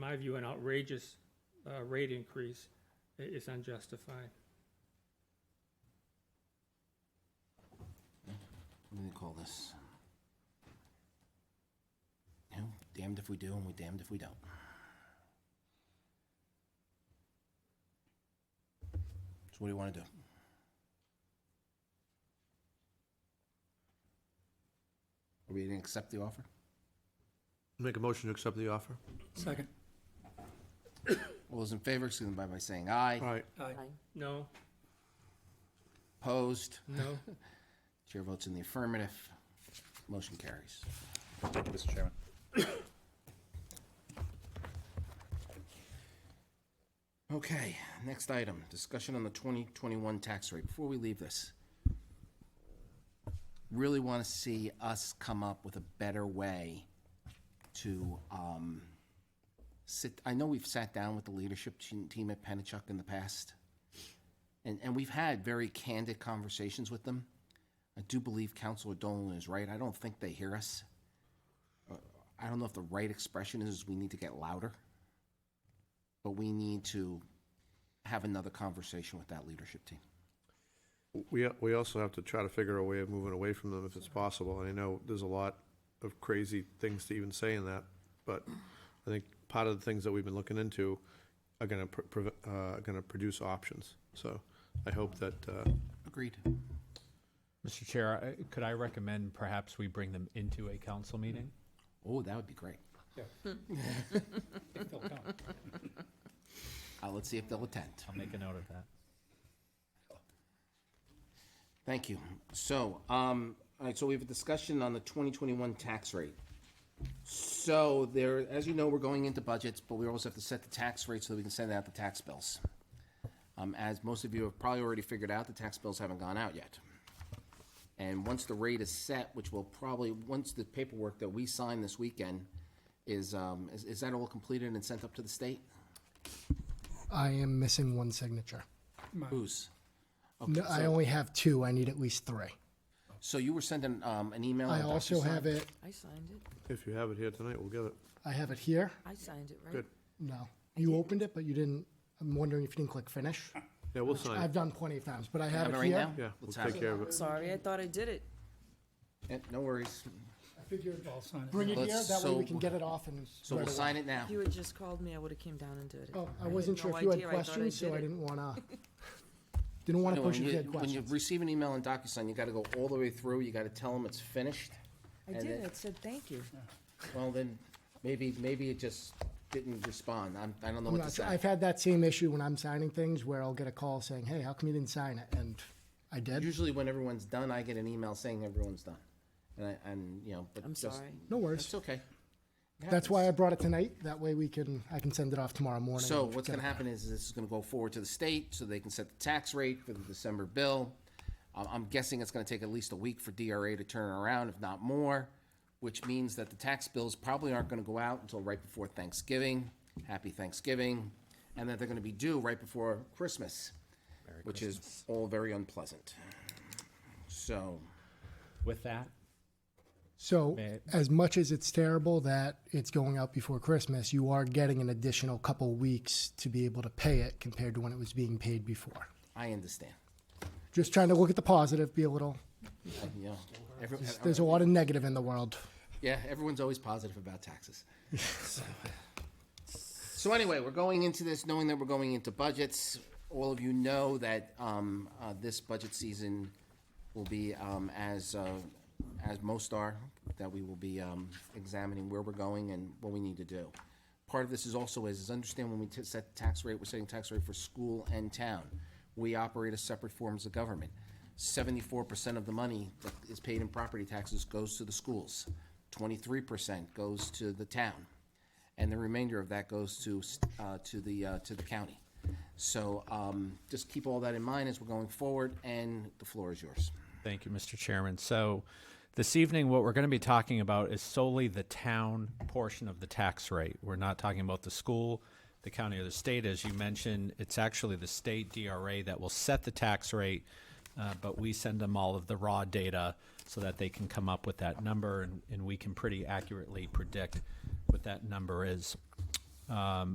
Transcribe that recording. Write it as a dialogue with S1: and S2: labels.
S1: my view, an outrageous uh, rate increase i- is unjustified.
S2: What do they call this? You know, damned if we do and we damned if we don't. So what do you want to do? Are we going to accept the offer?
S3: Make a motion to accept the offer?
S4: Second.
S2: All those in favor, signify by saying aye.
S3: All right,
S4: Aye.
S1: No,
S2: Opposed?
S1: no,
S2: Chair votes in the affirmative. Motion carries.
S5: Thank you, Mr. Chairman.
S2: Okay, next item, discussion on the 2021 tax rate. Before we leave this, really want to see us come up with a better way to um, sit, I know we've sat down with the leadership te- team at Pennachuck in the past, and, and we've had very candid conversations with them. I do believe Counselor Dolan is right. I don't think they hear us. Uh, I don't know if the right expression is we need to get louder but we need to have another conversation with that leadership team.
S3: we, we also have to try to figure a way of moving away from them if it's possible, and I know there's a lot of crazy things to even say in that, but I think part of the things that we've been looking into are gonna, pr- prov- uh, are gonna produce options, so I hope that, uh,
S2: Agreed.
S6: Mr. Chair, I- could I recommend perhaps we bring them into a council meeting?
S2: Oh, that would be great.
S6: They'll come.
S2: Uh, let's see if they'll attend.
S6: I'll make a note of that.
S2: Thank you. So, um, all right, so we have a discussion on the twenty twenty-one tax rate. So there, as you know, we're going into budgets, but we also have to set the tax rate so that we can send out the tax bills. Um, as most of you have probably already figured out, the tax bills haven't gone out yet. And once the rate is set, which will probably, once the paperwork that we sign this weekend is, um, is, is that all completed and sent up to the state?
S7: I am missing one signature.
S2: Whose?
S7: No, I only have two. I need at least three.
S2: So you were sending, um, an email?
S7: I
S2: on
S7: also
S2: DocuSign?
S7: have it,
S8: I signed it.
S3: if you have it here tonight, we'll get it.
S7: I have it here.
S8: I signed it, right?
S3: Good.
S7: No. You opened it, but you didn't, I'm wondering if you didn't click finish.
S3: Yeah, we'll sign
S7: I've
S3: it,
S7: done plenty of times, but I
S2: Have
S7: have
S2: it
S7: it
S2: right
S7: here.
S2: now?
S3: yeah, we'll
S2: Let's have
S3: take care of it.
S8: Sorry, I thought I did it.
S2: Eh, No worries.
S7: I figured,
S4: I'll sign it.
S7: bring it here,
S2: Let's-
S7: that way we
S2: so-
S7: can get it off and.
S2: So we'll
S7: right away.
S2: sign it now.
S8: If you had just called me, I would have came down and did it.
S7: Oh, I
S8: had
S7: wasn't sure
S8: no
S7: if you had
S8: idea. I thought
S7: questions, so
S8: did
S7: I
S8: it.
S7: didn't wanna, didn't wanna
S2: No,
S7: push
S2: When
S7: if
S2: you,
S7: you had
S2: when you
S7: questions.
S2: receive an email in DocuSign, you gotta go all the way through, you gotta tell them it's finished.
S8: I
S2: and
S8: did,
S2: then-
S8: I said thank you.
S2: Well, then, maybe, maybe it just didn't respond. I'm, I don't know
S7: I'm
S2: what to
S7: not sure.
S2: say.
S7: I've had that same issue when I'm signing things where I'll get a call saying, hey, how come you didn't sign it? And I did.
S2: Usually when everyone's done, I get an email saying everyone's done. And I, and, you know, but
S8: I'm
S2: just-
S8: sorry.
S7: No worries.
S2: It's okay. It
S7: That's why I
S2: happens.
S7: brought it tonight. That way we can, I can send it off tomorrow morning.
S2: So
S7: and
S2: what's
S7: get
S2: gonna
S7: it.
S2: happen is this is gonna go forward to the state, so they can set the tax rate for the December bill. I'm, I'm guessing it's gonna take at least a week for DRA to turn around, if not more, which means that the tax bills probably aren't gonna go out until right before Thanksgiving. Happy Thanksgiving, and that they're gonna be due right before Christmas, which is all very unpleasant. So,
S6: With that,
S7: So,
S6: May I-
S7: as much as it's terrible that it's going out before Christmas, you are getting an additional couple weeks to be able to pay it compared to when it was being paid before.
S2: I understand.
S7: Just trying to look at the positive, be a little.
S2: Uh, You know, every-
S7: There's a lot of negative in the world.
S2: Yeah, everyone's always positive about taxes. So- So anyway, we're going into this knowing that we're going into budgets. All of you know that um, uh, this budget season will be um, as, uh, as most are, that we will be um, examining where we're going and what we need to do. Part of this is also is, is understand when we t- set tax rate, we're setting tax rate for school and town. We operate as separate forms of government. Seventy-four percent of the money that is paid in property taxes goes to the schools. Twenty-three percent goes to the town and the remainder of that goes to, uh, to the, uh, to the county. So, um, just keep all that in mind as we're going forward, and the floor is yours.
S6: thank you, Mr. Chairman. So this evening, what we're going to be talking about is solely the town portion of the tax rate. We're not talking about the school, the county, or the state. As you mentioned, it's actually the state DRA that will set the tax rate, uh, but we send them all of the raw data so that they can come up with that number, and, and we can pretty accurately predict what that number is. Um,